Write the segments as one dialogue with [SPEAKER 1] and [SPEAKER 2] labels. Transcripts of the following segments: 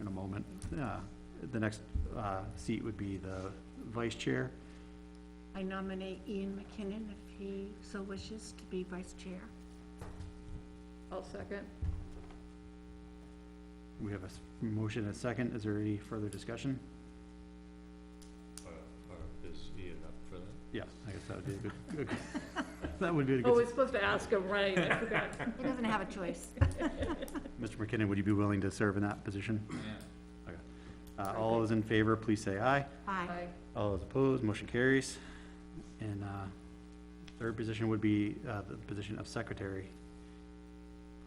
[SPEAKER 1] in a moment. Uh, The next uh, seat would be the vice chair.
[SPEAKER 2] I nominate Ian McKinnon if he so wishes to be vice chair.
[SPEAKER 3] I'll second.
[SPEAKER 1] We have a s- motion and a second. Is there any further discussion?
[SPEAKER 4] Or, or is Ian up for that?
[SPEAKER 1] Yeah, I guess that would be a good- good, that would be a
[SPEAKER 3] Oh,
[SPEAKER 1] good,
[SPEAKER 3] we're supposed to ask him, right, I forgot.
[SPEAKER 2] He doesn't have a choice.
[SPEAKER 1] Mr. McKinnon, would you be willing to serve in that position? Okay. Uh, All those in favor, please say aye.
[SPEAKER 2] Aye.
[SPEAKER 3] Aye.
[SPEAKER 1] All those opposed, motion carries. And uh, third position would be uh, the position of secretary.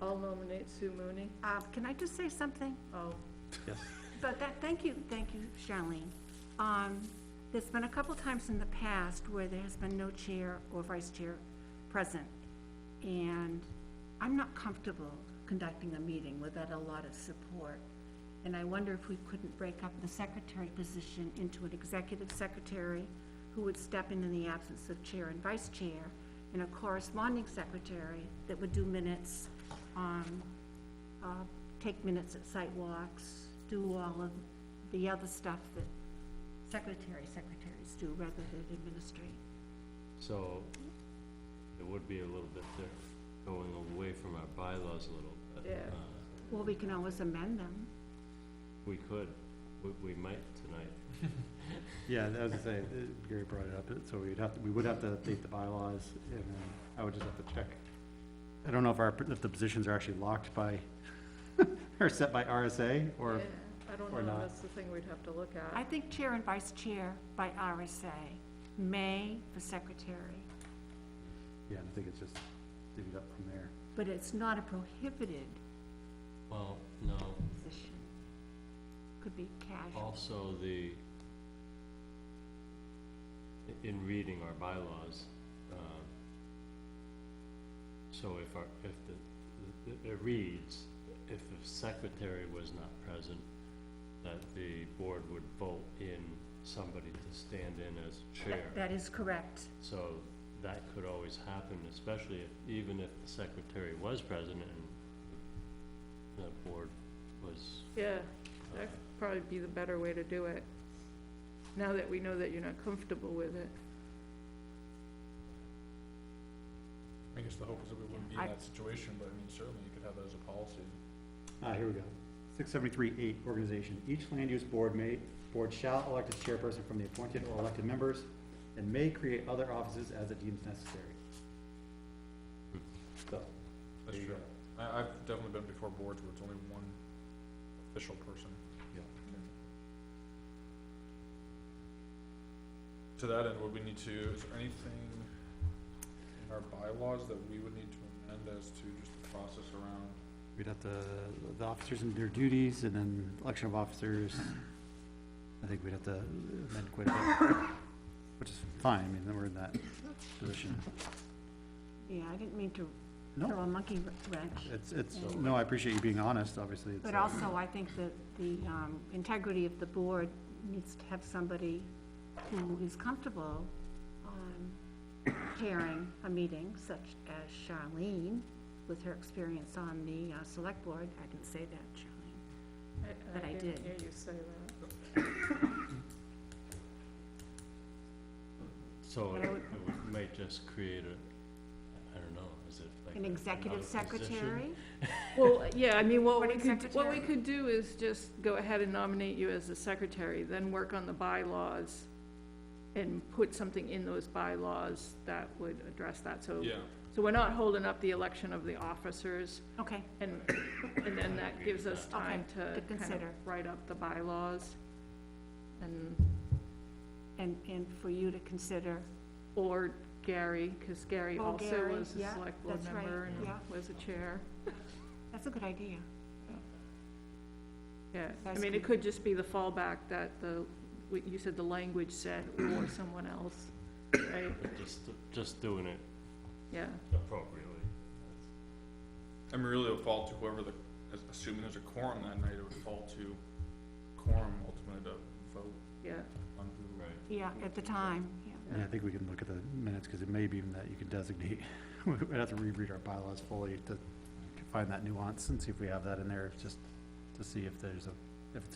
[SPEAKER 3] I'll nominate Sue Mooney.
[SPEAKER 2] Uh, Can I just say something?
[SPEAKER 3] Oh,
[SPEAKER 1] Yes,
[SPEAKER 2] But that, thank you, thank you, Charlene. Um, there's been a couple times in the past where there has been no chair or vice chair present. And I'm not comfortable conducting a meeting without a lot of support. And I wonder if we couldn't break up the secretary position into an executive secretary who would step in in the absence of chair and vice chair, and a corresponding secretary that would do minutes, um, uh, take minutes at site walks, do all of the other stuff that secretary, secretaries do rather than administrate.
[SPEAKER 4] So, it would be a little bit there, going away from our bylaws a little, but,
[SPEAKER 3] Yeah.
[SPEAKER 4] uh,
[SPEAKER 2] Well, we can always amend them.
[SPEAKER 4] we could, we, we might tonight.
[SPEAKER 1] yeah, I was gonna say, uh, Gary brought it up, so we'd have, to- we would have to update the bylaws, and then I would just have to check. I don't know if our, if the positions are actually locked by, or set by RSA,
[SPEAKER 3] yeah,
[SPEAKER 1] or,
[SPEAKER 3] I don't
[SPEAKER 1] or
[SPEAKER 3] know,
[SPEAKER 1] not.
[SPEAKER 3] that's the thing we'd have to look
[SPEAKER 2] I
[SPEAKER 3] at.
[SPEAKER 2] think chair and vice chair by RSA, may for secretary,
[SPEAKER 1] yeah, I think it's just divvied up from there.
[SPEAKER 2] but it's not a prohibited
[SPEAKER 4] Well, no,
[SPEAKER 2] position. Could be casual.
[SPEAKER 4] also the, i- in reading our bylaws, um, so if our, if the, the- it reads, if the secretary was not present, that the board would vote in somebody to stand in as chair.
[SPEAKER 2] That- That is correct.
[SPEAKER 4] So that could always happen, especially if, even if the secretary was president and the board was,
[SPEAKER 3] Yeah,
[SPEAKER 4] uh,
[SPEAKER 3] that'd probably be the better way to do it, now that we know that you're not comfortable with it.
[SPEAKER 5] I guess the hope is that we wouldn't be
[SPEAKER 2] I-
[SPEAKER 5] in that situation, but I mean, certainly you could have that as a policy.
[SPEAKER 1] Ah, here we go. Six seventy-three eight, organization. Each land use board may, board shall elect its chairperson from the appointed or elected members and may create other offices as it deems necessary. So,
[SPEAKER 5] That's
[SPEAKER 1] There you
[SPEAKER 5] true. I, I've definitely been before boards where it's only one official person.
[SPEAKER 1] Yeah.
[SPEAKER 5] To that end, would we need to, is there anything in our bylaws that we would need to amend as to just the process around?
[SPEAKER 1] we'd have to, the officers and their duties and then election of officers. I think we'd have to amend quite a bit, which is fine. I mean, we're in that position.
[SPEAKER 2] Yeah, I didn't mean to throw
[SPEAKER 1] No,
[SPEAKER 2] a monkey wrench.
[SPEAKER 1] it's, it's, no, I appreciate you being honest, obviously. it's,
[SPEAKER 2] But
[SPEAKER 1] uh,
[SPEAKER 2] also, I think that the um, integrity of the board needs to have somebody who is comfortable um, chairing a meeting such as Charlene, with her experience on the uh, select board. I didn't say that, Charlene. But I did.
[SPEAKER 3] didn't Hear you say that.
[SPEAKER 4] so
[SPEAKER 2] But
[SPEAKER 4] it
[SPEAKER 2] I would-
[SPEAKER 4] it would, might just create a, I don't know, is it like?
[SPEAKER 2] An executive
[SPEAKER 4] another position?
[SPEAKER 2] secretary?
[SPEAKER 3] Well, yeah, I mean, what we
[SPEAKER 2] Recording
[SPEAKER 3] could, what we
[SPEAKER 2] secretary.
[SPEAKER 3] could do is just go ahead and nominate you as the secretary, then work on the bylaws and put something in those bylaws that would address that, so.
[SPEAKER 5] Yeah,
[SPEAKER 3] So we're not holding up the election of the officers,
[SPEAKER 2] Okay,
[SPEAKER 3] and, and then that gives us time to
[SPEAKER 2] to
[SPEAKER 3] kind of
[SPEAKER 2] consider.
[SPEAKER 3] write up the bylaws. And,
[SPEAKER 2] and, and for you to consider,
[SPEAKER 3] or Gary, because Gary
[SPEAKER 2] Or
[SPEAKER 3] also
[SPEAKER 2] Oh, Gary,
[SPEAKER 3] was a
[SPEAKER 2] yeah,
[SPEAKER 3] select board
[SPEAKER 2] that's right,
[SPEAKER 3] member and
[SPEAKER 2] yeah.
[SPEAKER 3] was a chair.
[SPEAKER 2] that's a good idea.
[SPEAKER 3] Yeah, I
[SPEAKER 2] That's
[SPEAKER 3] mean, it
[SPEAKER 2] good.
[SPEAKER 3] could just be the fallback that the, what you said the language said, or someone else, right?
[SPEAKER 4] But Just, just doing it
[SPEAKER 3] Yeah,
[SPEAKER 4] appropriately.
[SPEAKER 5] I mean, really it would fall to whoever the, as- assuming there's a quorum that night, it would fall to quorum ultimately to vote
[SPEAKER 3] yeah,
[SPEAKER 5] on who.
[SPEAKER 4] Right.
[SPEAKER 2] Yeah, at the time, yeah.
[SPEAKER 1] And I think we can look at the minutes, because it may be even that you can designate, we'd have to reread our bylaws fully to find that nuance and see if we have that in there, just to see if there's a if it's